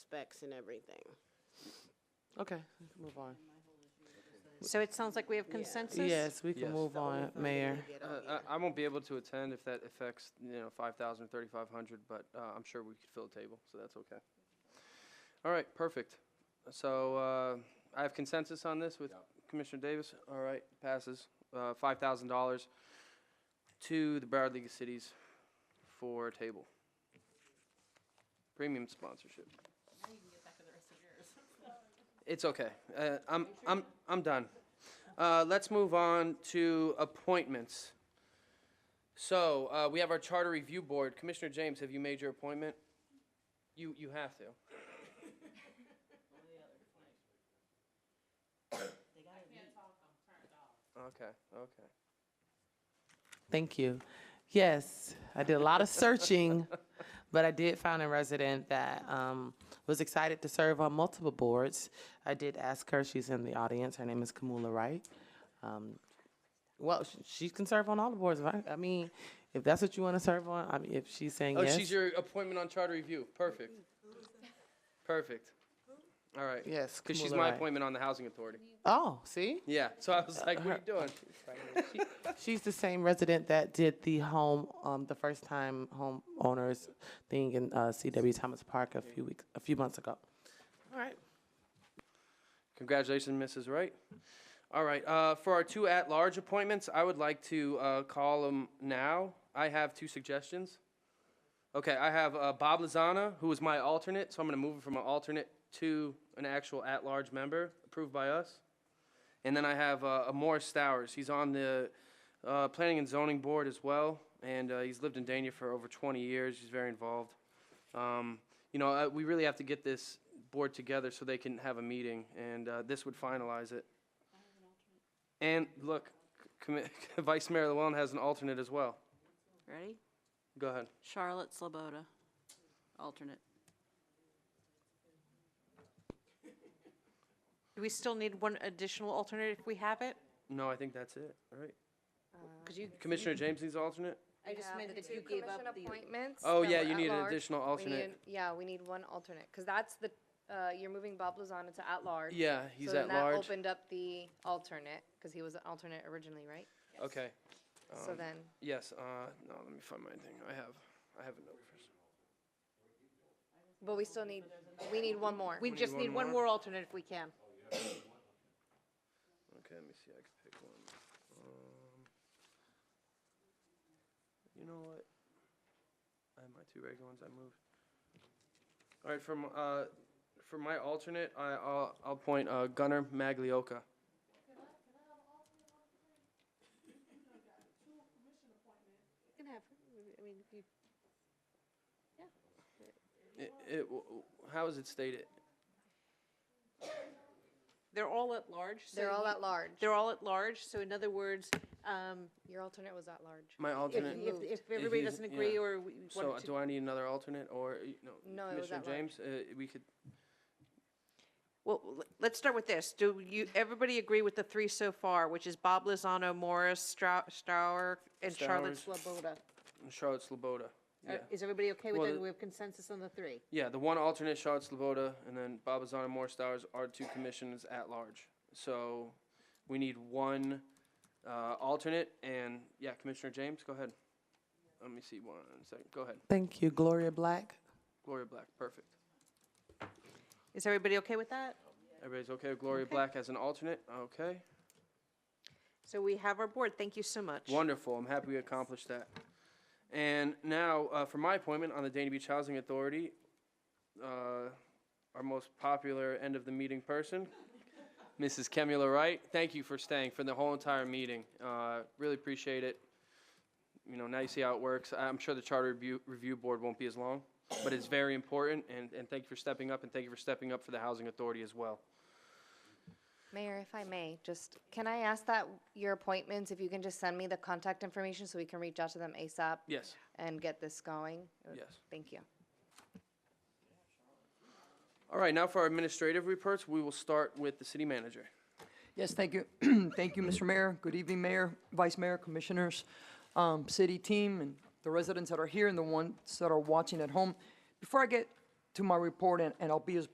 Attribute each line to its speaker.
Speaker 1: specs and everything.
Speaker 2: Okay, we can move on.
Speaker 3: So it sounds like we have consensus?
Speaker 2: Yes, we can
Speaker 4: Yes.
Speaker 2: move on, Mayor.
Speaker 1: Get all
Speaker 4: Uh, I, I won't be able to attend if that affects, you know, 5,000 or 3,500, but uh, I'm sure we could fill the table, so that's okay. All right, perfect. So uh, I have consensus on this with Commissioner Davis. All right, passes. Uh, $5,000 to the Broward League of Cities for a table. Premium sponsorship. It's okay. Uh, I'm, I'm, I'm done. Uh, let's move on to appointments. So, uh, we have our Charter Review Board. Commissioner James, have you made your appointment? You, you have to. Okay, okay.
Speaker 2: Thank you. Yes, I did a lot of searching, but I did find a resident that um, was excited to serve on multiple boards. I did ask her, she's in the audience, her name is Kamula Wright. Um, Well, sh- she can serve on all the boards, right? I mean, if that's what you want to serve on, I mean, if she's saying
Speaker 4: Oh,
Speaker 2: yes.
Speaker 4: she's your appointment on Charter Review. Perfect. Perfect. All right.
Speaker 2: Yes,
Speaker 4: Because she's
Speaker 2: Kamula
Speaker 4: my
Speaker 2: Wright.
Speaker 4: appointment on the Housing Authority.
Speaker 2: Oh, see?
Speaker 4: Yeah, so I was like, what are you doing?
Speaker 2: She's the same resident that did the home, um, the first time homeowners thing in uh, C.W. Thomas Park a few weeks, a few months ago. All right.
Speaker 4: Congratulations, Mrs. Wright. All right, uh, for our two at-large appointments, I would like to uh, call them now. I have two suggestions. Okay, I have uh, Bob Lozana, who is my alternate, so I'm going to move him from an alternate to an actual at-large member, approved by us. And then I have uh, Morris Stowers. He's on the uh, Planning and Zoning Board as well, and uh, he's lived in Dania for over 20 years. He's very involved. Um, you know, uh, we really have to get this board together so they can have a meeting, and uh, this would finalize it. And look, commi- Vice Mayor Llewellyn has an alternate as well.
Speaker 5: Ready?
Speaker 4: Go ahead.
Speaker 5: Charlotte Sloboda, alternate.
Speaker 3: Do we still need one additional alternate if we have it?
Speaker 4: No, I think that's it, right?
Speaker 3: Because you,
Speaker 4: Commissioner James needs alternate?
Speaker 3: I just
Speaker 6: Yeah,
Speaker 3: meant
Speaker 6: the
Speaker 3: if
Speaker 6: two
Speaker 3: you gave
Speaker 6: commission
Speaker 3: up the.
Speaker 6: appointments.
Speaker 4: Oh,
Speaker 6: that
Speaker 4: yeah,
Speaker 6: were
Speaker 4: you
Speaker 6: at
Speaker 4: need an
Speaker 6: large.
Speaker 4: additional
Speaker 6: We
Speaker 4: alternate.
Speaker 6: need- Yeah, we need one alternate, because that's the, uh, you're moving Bob Lozano to at-large.
Speaker 4: Yeah, he's
Speaker 6: So then
Speaker 4: at-large.
Speaker 6: that opened up the alternate, because he was an alternate originally, right?
Speaker 4: Okay, Um,
Speaker 6: So then,
Speaker 4: yes, uh, no, let me find my thing. I have, I have a note first.
Speaker 6: but we still need, we need one more.
Speaker 3: We just need one more alternate if we can.
Speaker 4: Okay, let me see, I can pick one. Um, You know what? I have my two regular ones I moved. All right, from, uh, for my alternate, I, I'll, I'll point, uh, Gunnar Maglioka.
Speaker 3: can have, I mean, if you.
Speaker 4: It, it, w- w- how is it stated?
Speaker 3: They're all at large, so.
Speaker 6: They're all
Speaker 3: you-
Speaker 6: at large.
Speaker 3: They're all at large, so in other words, um,
Speaker 6: Your alternate was at large.
Speaker 4: My
Speaker 3: if,
Speaker 4: alternate?
Speaker 3: if, if everybody
Speaker 4: he's-
Speaker 3: doesn't agree
Speaker 4: yeah.
Speaker 3: or we we
Speaker 4: So
Speaker 3: want
Speaker 4: do
Speaker 3: to.
Speaker 4: I need another alternate or, uh, no?
Speaker 6: No, it was
Speaker 4: Commissioner
Speaker 6: at large.
Speaker 4: James, uh, we could,
Speaker 3: Well, l- let's start with this. Do you, everybody agree with the three so far, which is Bob Lozano, Morris Strau- Strauer, and Charlotte Sloboda?
Speaker 4: Charlotte Sloboda.
Speaker 3: Are-
Speaker 4: Yeah,
Speaker 3: Is everybody okay with
Speaker 4: Well,
Speaker 3: that?
Speaker 4: the-
Speaker 3: We have consensus on the three?
Speaker 4: yeah, the one alternate, Charlotte Sloboda, and then Babazana Moore Stowers are two commissions at large. So we need one, uh, alternate and, yeah, Commissioner James, go ahead. Let me see one second. Go ahead.
Speaker 2: Thank you, Gloria Black.
Speaker 4: Gloria Black, perfect.
Speaker 3: Is everybody okay with that?
Speaker 4: Everybody's okay with Gloria
Speaker 3: Okay.
Speaker 4: Black as an alternate? Okay.
Speaker 3: So we have our board. Thank you so much.
Speaker 4: Wonderful. I'm happy we accomplished that. And now, uh, for my appointment on the Dana Beach Housing Authority, uh, our most popular end of the meeting person, Mrs. Kemula Wright. Thank you for staying for the whole entire meeting. Uh, really appreciate it. You know, now you see how it works. I'm sure the Charter Review, Review Board won't be as long, but it's very important. And, and thank you for stepping up, and thank you for stepping up for the Housing Authority as well.
Speaker 6: Mayor, if I may, just, can I ask that your appointments, if you can just send me the contact information so we can reach out to them ASAP?
Speaker 4: Yes.
Speaker 6: And get this going?
Speaker 4: Yes.
Speaker 6: Thank you.
Speaker 4: All right, now for our administrative reports, we will start with the City Manager.
Speaker 7: Yes, thank you. Thank you, Mr. Mayor. Good evening, Mayor, Vice Mayor, Commissioners, um, city team, and the residents that are here and the ones that are watching at home. Before I get to my report, and and I'll be as